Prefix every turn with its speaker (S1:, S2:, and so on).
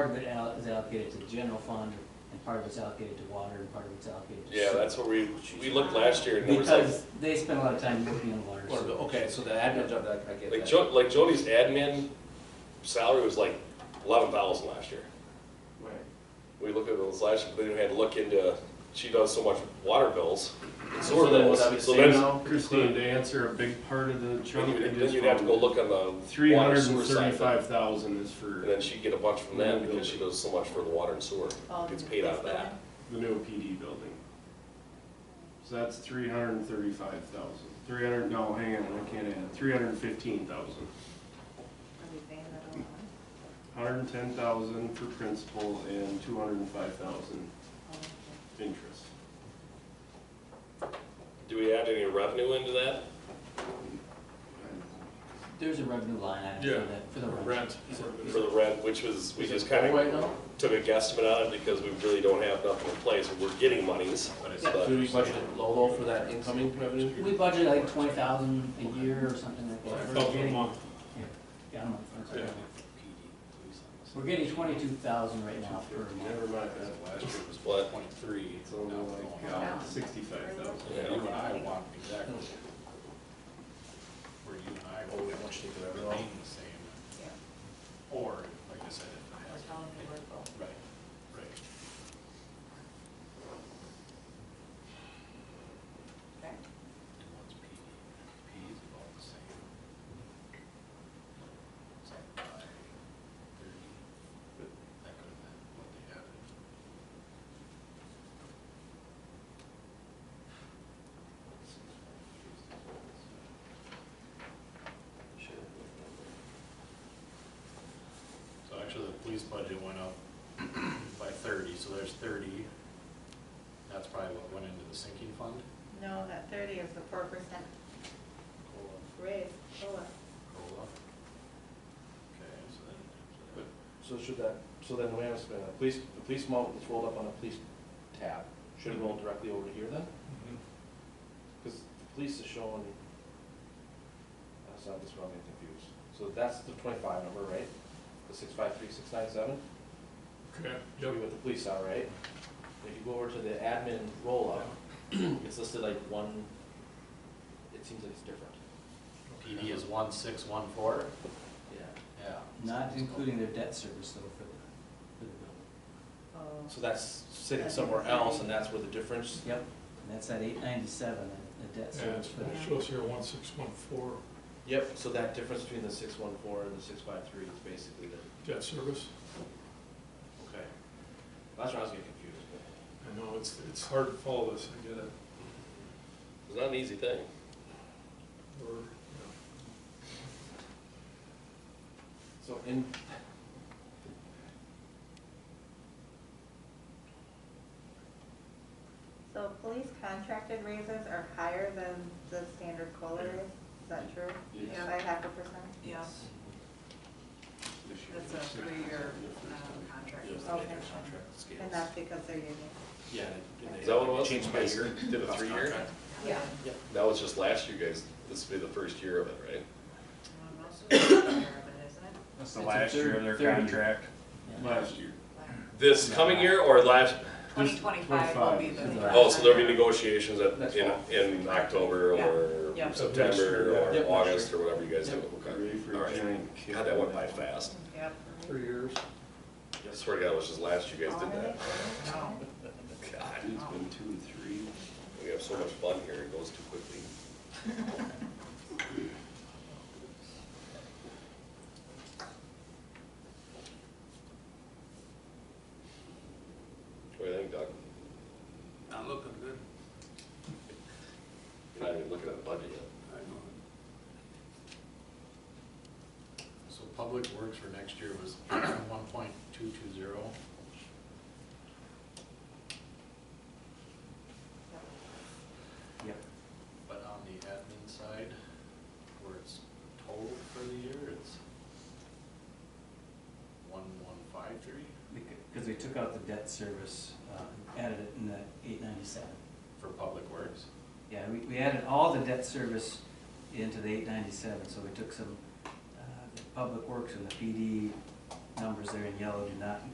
S1: Part of it al- is allocated to the general fund, and part of it's allocated to water, and part of it's allocated to.
S2: Yeah,
S1: sewer.
S2: that's what we, we looked last year and there was like,
S1: Because they spend a lot of time working on water.
S3: Or,
S1: sewer.
S3: okay, so the admin job, I, I get
S2: like
S3: that.
S2: Jo, like Jody's admin salary was like eleven thousand last year.
S3: Right.
S2: We looked at those last year, but then we had to look into, she does so much water bills, and
S3: So
S2: sewer
S3: then
S2: bills,
S3: would that be
S2: so
S3: saved
S2: then,
S3: now?
S4: Christine, to answer a big part of the
S2: then
S4: chunk,
S2: you'd, then you'd have to go look on
S4: Three
S2: the water
S4: hundred
S2: sewer
S4: and
S2: side. of it.
S4: thirty-five thousand is for
S2: And then she'd get a bunch from that because she does so much for the water and sewer,
S5: Oh,
S2: gets paid out of
S5: that's
S2: that.
S4: the new PD building. So that's three hundred and thirty-five thousand. Three hundred, no, hang on, I can't add, three hundred and fifteen thousand.
S5: Are we paying that all on?
S4: Hundred and ten thousand for principal and two hundred and five thousand
S5: Oh, okay.
S4: interest.
S2: Do we add any revenue into that?
S1: There's a revenue line item
S3: Yeah.
S1: for that, for the rent.
S3: Rent.
S2: for the rent, which was, we
S3: Is
S2: just
S3: it full
S2: kind
S3: right
S2: of
S3: now?
S2: took a guesstimate on it because we really don't have nothing in place. We're getting monies, but
S3: Do we budget it low though for that incoming revenue?
S1: We budget like twenty thousand a year or something like that. We're getting- Yeah, yeah, a month, I'm sorry. We're getting twenty-two thousand right now per month.
S4: Never mind that.
S6: Last year was
S2: What?
S6: what, point three,
S4: It's
S6: so
S4: only
S6: now
S4: like,
S6: it's
S4: uh,
S5: Wow.
S4: sixty-five thousand.
S6: going up. You and I want exactly where you and I
S3: Oh, we
S6: would
S3: want you to do everything.
S6: remain the same.
S5: Yeah.
S6: Or, like I said, if it
S5: We're
S6: has.
S5: telling you we're full.
S6: Right, right.
S5: Okay.
S6: And what's P? P is about the same. It's up by thirty. That could have been what they added. So actually, the police budget went up by thirty, so there's thirty. That's probably what went into the sinking fund.
S5: No, that thirty is the four percent
S6: COLA.
S5: raise, COLA.
S6: COLA. Okay, so then. so that-
S3: So should that, so then we have, the police, the police amount that's rolled up on a police tab, should it roll directly over here then? Because the police is showing, that's not, this one I'm getting confused. So that's the twenty-five number, right? The six-five-three-six-nine-seven?
S4: Okay,
S3: Should be what the police are, right? If you go over to the admin roll-up, it's listed like one, it seems like it's different.
S6: PD is one six one four,
S3: Yeah.
S6: yeah.
S1: Not including their debt service though for the, for the building.
S5: Oh.
S3: So that's sitting somewhere else, and that's where the difference,
S1: Yep, and that's at eight ninety-seven, the debt
S7: Yeah,
S1: service
S7: it's-
S1: for that.
S7: it shows here one six one four
S3: yep, so that difference between the six one four and the six five three is basically the,
S7: debt service.
S3: okay. That's where I was getting confused, but.
S7: I know, it's, it's hard to follow this, I get it.
S2: it's not an easy thing.
S7: Or, you
S3: So in.
S5: So police contracted raises are higher than the standard COLA raise, is that true?
S4: Yes.
S5: By half a percent?
S8: Yeah,
S4: This year
S8: that's a
S4: it's
S8: three-year um, contract.
S4: Yeah, it's
S5: Okay.
S4: their contract scales.
S5: And that's because they're union?
S4: Yeah. and they-
S2: Is that what it was?
S4: Changed by year, did a
S2: Cost
S4: three-year.
S2: contract?
S5: Yeah.
S2: That was just last year, guys. This will be the first year of it, right?
S8: Um, Most of it's a year, but isn't it?
S6: That's
S1: the It's a last year of their third- thirty. contract. Yeah.
S4: Last year.
S2: This coming year or last,
S8: Twenty twenty-five will be the.
S1: Twenty-five.
S2: oh, so there'll be negotiations at,
S3: That's
S2: in,
S3: fall.
S2: in October or
S8: Yeah. Yeah.
S2: September
S4: Yeah.
S2: or
S3: Yep.
S2: August or whatever you guys do.
S4: Ready
S2: Okay.
S4: for a
S2: All right.
S4: giant kick
S2: God, that went by
S4: on that one.
S2: fast.
S8: Yep.
S4: Three years.
S2: I swear to God, it was just last year you guys did that.
S8: No.
S2: God,
S4: It's been two, three.
S2: we have so much fun here. It goes too quickly. What do you think, Doug?
S6: Not looking good.
S2: You're not even looking at the budget yet.
S6: So public works for next year was one point two two zero.
S1: Yep.
S6: But on the admin side, where it's total for the year, it's one one five three
S1: Because we took out the debt service, uh, added it in the eight ninety-seven.
S6: for public works.
S1: Yeah, we, we added all the debt service into the eight ninety-seven, so we took some, uh, the public works and the PD numbers there in yellow do not